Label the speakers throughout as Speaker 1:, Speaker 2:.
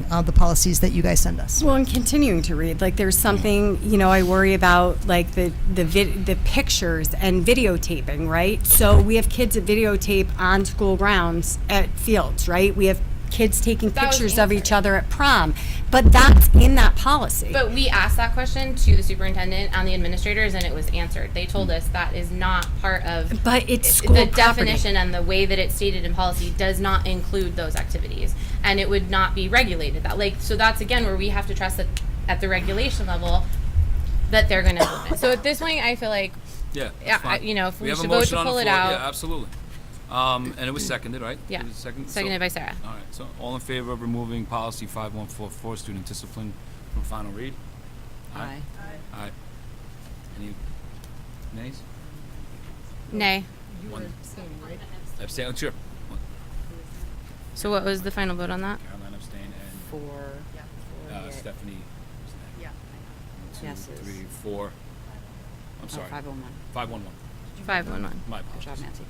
Speaker 1: reading uh, the policies that you guys send us.
Speaker 2: Well, and continuing to read, like there's something you know I worry about, like the the vid- the pictures and videotaping, right? So we have kids that videotape on school grounds at fields, right? We have kids taking
Speaker 3: That was
Speaker 2: pictures of each
Speaker 3: answered.
Speaker 2: other at prom, but that's in that policy.
Speaker 3: But we asked that question to the superintendent and the administrators, and it was answered. They told us that is not part of.
Speaker 2: But it's
Speaker 3: it-
Speaker 2: school
Speaker 3: The
Speaker 2: property.
Speaker 3: definition and the way that it's stated in policy does not include those activities, and it would not be regulated that, like, so that's again where we have to trust that at the regulation level, that they're gonna implement. So at this point, I feel like,
Speaker 4: Yeah. that's
Speaker 3: Yeah, I-
Speaker 4: fine.
Speaker 3: you know, if we
Speaker 4: have a
Speaker 3: should vote
Speaker 4: motion
Speaker 3: to
Speaker 4: on the
Speaker 3: pull it
Speaker 4: floor.
Speaker 3: out.
Speaker 4: Yeah, absolutely. Um, and it was seconded, right?
Speaker 3: Yeah.
Speaker 4: It was seconded, so-
Speaker 3: Seconded by Sarah.
Speaker 4: All right, so all in favor of removing policy five one four four, student discipline from final read? Aye. Aye. Any nays?
Speaker 3: nay.
Speaker 4: One. Abstain, sure. One.
Speaker 3: So what was the final vote on that?
Speaker 4: Caroline abstained and,
Speaker 5: Four.
Speaker 4: uh, Stephanie was nay. One,
Speaker 5: Yeses.
Speaker 4: two, three, four. I'm sorry.
Speaker 5: Five oh one.
Speaker 4: Five one one.
Speaker 3: Five one one.
Speaker 4: My
Speaker 5: Good job,
Speaker 4: apologies.
Speaker 5: math teacher.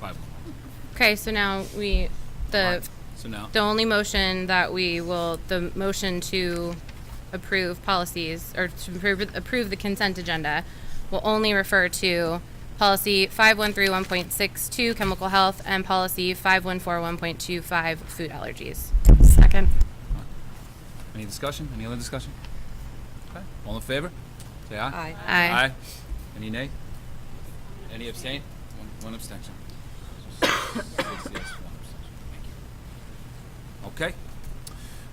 Speaker 4: Five one one.
Speaker 3: Okay, so now we, the,
Speaker 4: So now,
Speaker 3: the only motion that we will, the motion to approve policies or to approve, approve the consent agenda will only refer to policy five one three one point six two chemical health and policy five one four one point two five food allergies.
Speaker 2: Second.
Speaker 4: any discussion? Any other discussion? Okay. All in favor? Say aye.
Speaker 5: Aye.
Speaker 3: Aye.
Speaker 4: Aye. Any nay? Any abstain? One, one abstention. Six yes, one abstention. Thank you. Okay.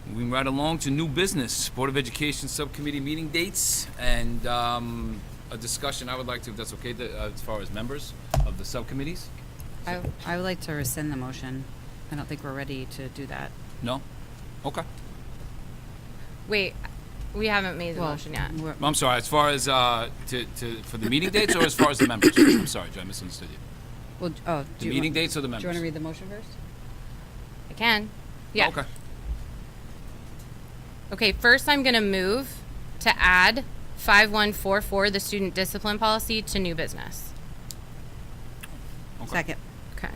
Speaker 4: Moving right along to new business, Board of Education Subcommittee meeting dates and um, a discussion I would like to, if that's okay, the- uh, as far as members of the subcommittees?
Speaker 5: I, I would like to rescind the motion. I don't think we're ready to do that.
Speaker 4: No? Okay.
Speaker 3: Wait, we haven't made the motion yet.
Speaker 5: we're-
Speaker 4: I'm sorry, as far as, uh, to, to, for the meeting dates or as far as the members? I'm sorry, Joe, I misunderstood you.
Speaker 5: Well, oh. do
Speaker 4: The
Speaker 5: you
Speaker 4: meeting
Speaker 5: want-
Speaker 4: dates or the
Speaker 5: Do you want
Speaker 4: members?
Speaker 5: to read the motion first?
Speaker 3: I can. Yeah.
Speaker 4: Okay.
Speaker 3: Okay, first I'm gonna move to add five one four four, the student discipline policy, to new business.
Speaker 4: Okay.
Speaker 5: Second.
Speaker 3: Okay.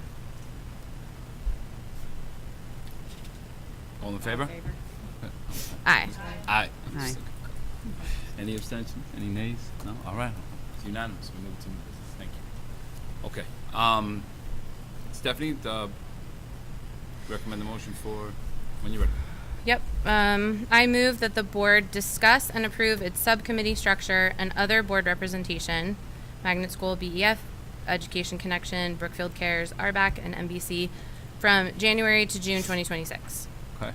Speaker 4: All in favor?
Speaker 3: Aye.
Speaker 4: Aye.
Speaker 5: Aye.
Speaker 4: Any abstention? Any nays? No? All right. It's unanimous. We move to new business. Thank you. Okay. Um, Stephanie, the, recommend the motion for, when you're ready.
Speaker 3: Yep. Um, I move that the board discuss and approve its subcommittee structure and other board representation, Magnet School, BEF, Education Connection, Brookfield Cares, RBAC, and MBC, from January to June 2026.
Speaker 4: Okay.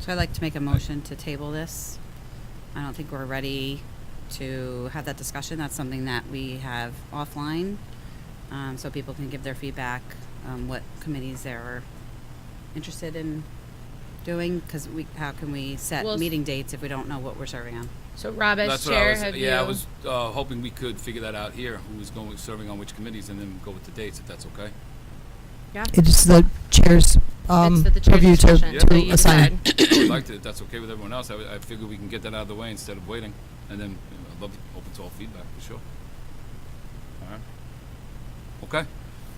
Speaker 5: So I'd like to make a motion to table this. I don't think we're ready to have that discussion. That's something that we have offline, um, so people can give their feedback, um, what committees they're interested in doing, because we, how can we set
Speaker 3: Well, s-
Speaker 5: meeting dates if we don't know what we're serving on?
Speaker 3: So Rob, as
Speaker 4: That's what I
Speaker 3: chair,
Speaker 4: was-
Speaker 3: have you?
Speaker 4: Yeah, I was, uh, hoping we could figure that out here, who is going, serving on which committees, and then go with the dates, if that's okay.
Speaker 3: Yeah.
Speaker 1: It is the chair's um,
Speaker 3: It's at the chair's
Speaker 1: purview to,
Speaker 3: discretion, so
Speaker 1: to
Speaker 3: you
Speaker 1: assign.
Speaker 3: decide.
Speaker 4: I would like to, if that's okay with everyone else, I, would- I figure we can get that out of the way instead of waiting, and then, you know, I'd love, to- open to all feedback, for sure. Alright. Okay,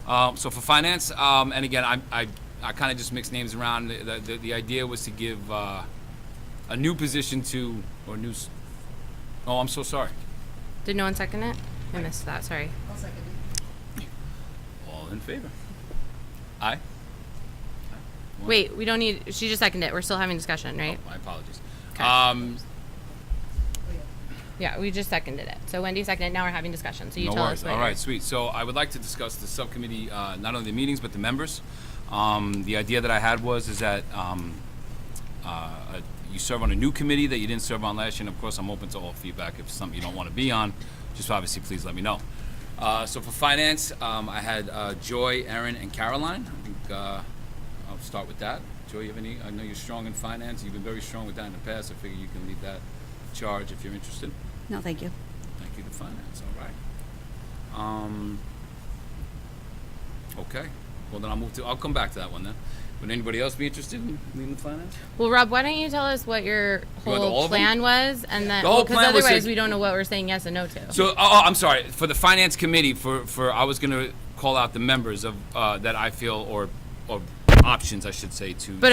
Speaker 4: um, so for finance, um, and again, I, I, I kinda just mixed names around, the, the, the idea was to give, uh, a new position to, or new, s- oh, I'm so sorry.
Speaker 3: Did no one second it? I missed that. Sorry.
Speaker 4: All in favor? Aye? One.
Speaker 3: Wait, we don't need. She just seconded it. We're still having discussion, right?
Speaker 4: My apologies.
Speaker 3: Okay.
Speaker 4: Um,
Speaker 3: Yeah, we just seconded it. So Wendy seconded. it. Now we're having discussion. So you
Speaker 4: no
Speaker 3: tell
Speaker 4: worries.
Speaker 3: us later.
Speaker 4: All right, sweet. So I would like to discuss the subcommittee, uh, not only the meetings but the members. Um, the idea that I had was is that um, uh, uh, you serve on a new committee that you didn't serve on last year, and of course, I'm open to all feedback. If it's something you don't want to be on, just obviously please let me know. Uh, so for finance, um, I had uh, Joy, Erin, and Caroline. I think uh, I'll start with that. Joy, you have any? I know you're strong in finance. You've been very strong with that in the past. I figure you can lead that charge if you're interested.
Speaker 5: No, thank you.
Speaker 4: Thank you to finance, all right. Um, okay, well then I'll move to, I'll come back to that one then. Would anybody else be interested in leading the finance?
Speaker 3: Well, Rob, why don't you tell us what your
Speaker 4: want all
Speaker 3: whole
Speaker 4: of them?
Speaker 3: plan was, and then
Speaker 4: The whole
Speaker 3: because
Speaker 4: plan was to-
Speaker 3: otherwise we don't know what we're saying yes and no to.
Speaker 4: So, oh, oh, I'm sorry, for the finance committee, for, for, I was gonna call out the members of, uh, that I feel, or, or options, I should say, to.
Speaker 3: But